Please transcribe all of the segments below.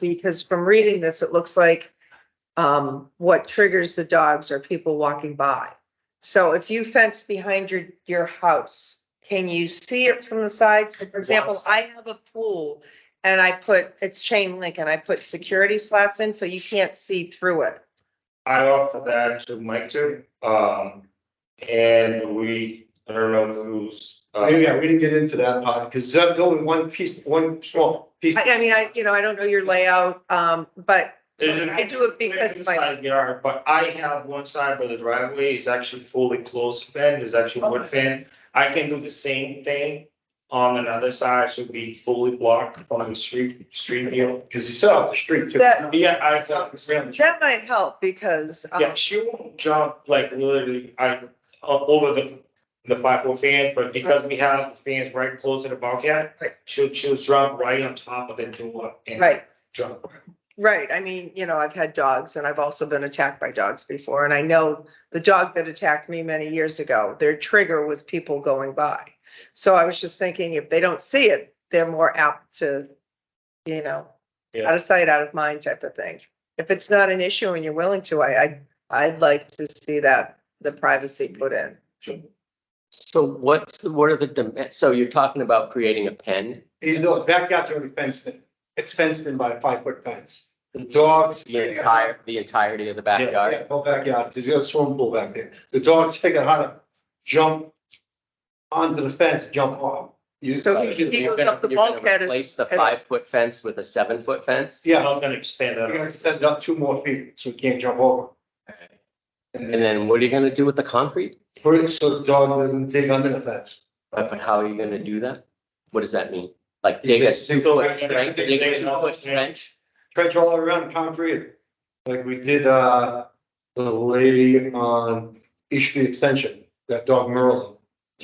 because from reading this, it looks like um, what triggers the dogs are people walking by. So if you fence behind your, your house, can you see it from the side? So for example, Yes. I have a pool and I put, it's chain link and I put security slats in, so you can't see through it. I offered that to Mike too, um, and we, I don't know who's. uh, Maybe, yeah, we didn't get into that part, because that's only one piece, one small piece. I, I mean, I, you know, I don't know your layout, um, but Is it- I do it because It's my- side yard, but I have one side where the driveway is actually fully closed fin, is actually wood fin. I can do the same thing on another side, should be fully blocked from the street, street view. Because you set off the street too. That- Yeah, I It's not thought, the same. that might help because. um, yeah, she won't jump like literally, I, o- over the, the five foot fan, but because we have the fans right close to the bulkhead, she'll, she'll jump right on top of the door and Right. jump. Right, I mean, you know, I've had dogs and I've also been attacked by dogs before, and I know the dog that attacked me many years ago, their trigger was people going by. So I was just thinking, if they don't see it, they're more apt to, you know, Yeah. out of sight, out of mind type of thing. If it's not an issue and you're willing to, I, I, I'd like to see that, the privacy put in. So what's, the- what are the, dim- so you're talking about creating a pen? You know, the backyard's already fenced in. It's fenced in by a five foot fence. The dogs. The entire, the entirety of the Yeah, backyard? whole backyard, there's got a swimming pool back there. The dogs figure out how to jump onto the fence, and jump off. You- So he- You're he goes gonna- up the you're gonna bulkhead as- Replace the as- five foot fence with a seven foot fence? I'm Yeah, not gonna extend you gotta that. set it up two more feet so he can't jump over. And then what are you gonna do with the concrete? Put it so the dog doesn't dig under the fence. But but how are you gonna do that? What does that mean? Like You dig a just- two foot trench, dig a Dig two another foot trench. trench? trench all around concrete, like we did, uh, the lady on East Street Extension, that dog Merlin.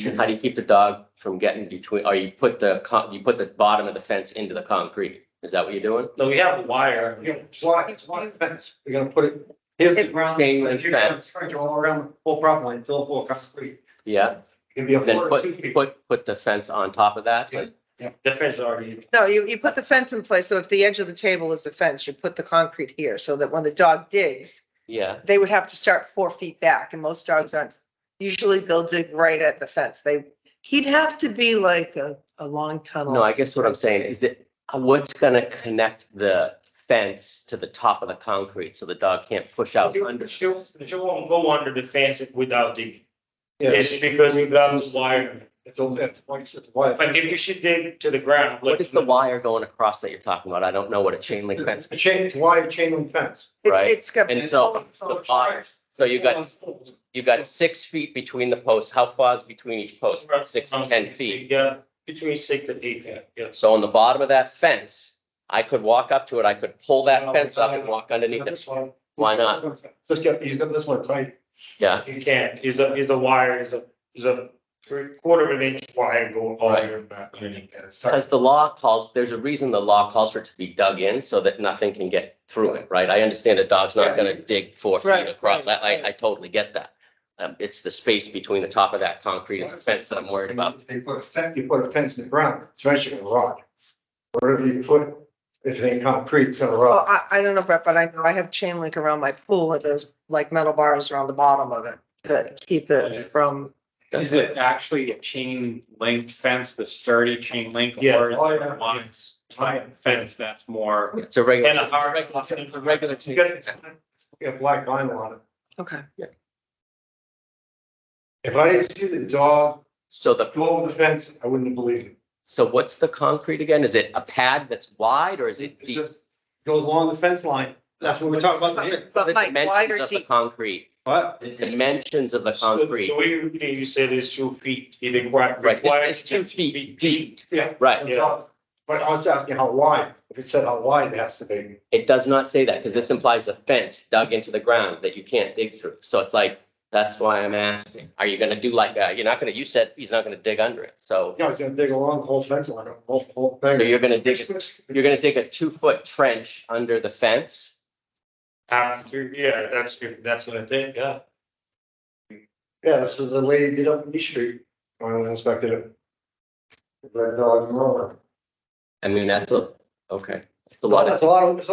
And How do you keep the dog from getting between, or you put the, con- you put the bottom of the fence into the concrete? Is that what you're doing? No, we have a wire. We're gonna block- block the fence. We're gonna put it, here's the ground. Chain link You're gonna fence. Trench all around the whole property line, fill it full of concrete, Yeah, it can be a then four or two put, feet. put, put the fence on top of that, so The fence is already, No, you, you put the fence in place, so if the edge of the table is the fence, you put the concrete here, so that when the dog digs, yeah. they would have to start four feet back and most dogs aren't, usually they'll dig right at the fence. They, he'd have to be like a, a long tunnel. No, I guess what I'm saying is that uh, what's gonna connect the fence to the top of the concrete so the dog can't push out under? she won't, she won't go under the fence without digging. Yeah, It's because we got this wire. it's all, it's one, it's one. But if you should dig to the ground. like- What is the wire going across that you're talking about? I don't know what a chain link fence, It's a chain, it's a wire chain link fence. It- right. It's got. And so the bottom, so you got, you got six feet between the posts. How far is between each post? Six to ten feet. Yeah, between six and eight feet, yes. So on the bottom of that fence, I could walk up to it. I could pull that fence up and walk underneath it. This one. Why not? Let's get, he's got this one tight. Yeah, You can, is a, is a wire, is a, is a three quarter of an inch wire going all the way back underneath that. because the law calls, there's a reason the law calls for it to be dug in so that nothing can get through it, right? I understand a dog's Yeah. not gonna dig four Right, feet across. I, right, I, I totally get that. Um, it's the space between the top of that concrete and the fence that I'm worried about. If They put a fence, you put a fence in the ground, it's eventually gonna rot. Whatever you put, if it ain't concrete, it's gonna Well, rot. I, I don't know, Brett, but I know I have chain link around my pool and there's like metal bars around the bottom of it that keep it from, Is it actually a chain link fence, the sturdy chain link? Yeah. or is Oh, it yeah. a lines- Giant. Fence that's more, It's a regular, And a hard- it's a regular. You got, it's, you got black vinyl on it. okay. If I didn't see the dog So the go over the fence, I wouldn't have believed it. So what's the concrete again? Is it a pad that's wide or is it It's deep? just Goes along the fence line, that's what we're talking about here, What are But The Mike, wide dimensions or of the deep? concrete, but the dimensions of the So the- concrete, The way you, you said is two feet, it requires. Right, it's- it's two feet deep. yeah. right? Yeah. But I was asking how wide, if it said how wide it has to be. It does not say that because this implies a fence dug into the ground that you can't dig through. So it's like, that's why I'm asking, are you gonna do like, uh, you're not gonna, you said he's not gonna dig under it. So Yeah, it's gonna dig along the whole fence line, the whole, whole so thing. you're gonna dig, you're gonna dig a two foot trench under the fence. After, yeah, that's, if that's what I think, yeah. Yeah, that's what the lady did up in East Street, when I uh, inspected it. That dog, Merlin. I mean, that's a, okay. It's a lot of That's a lot of, it's a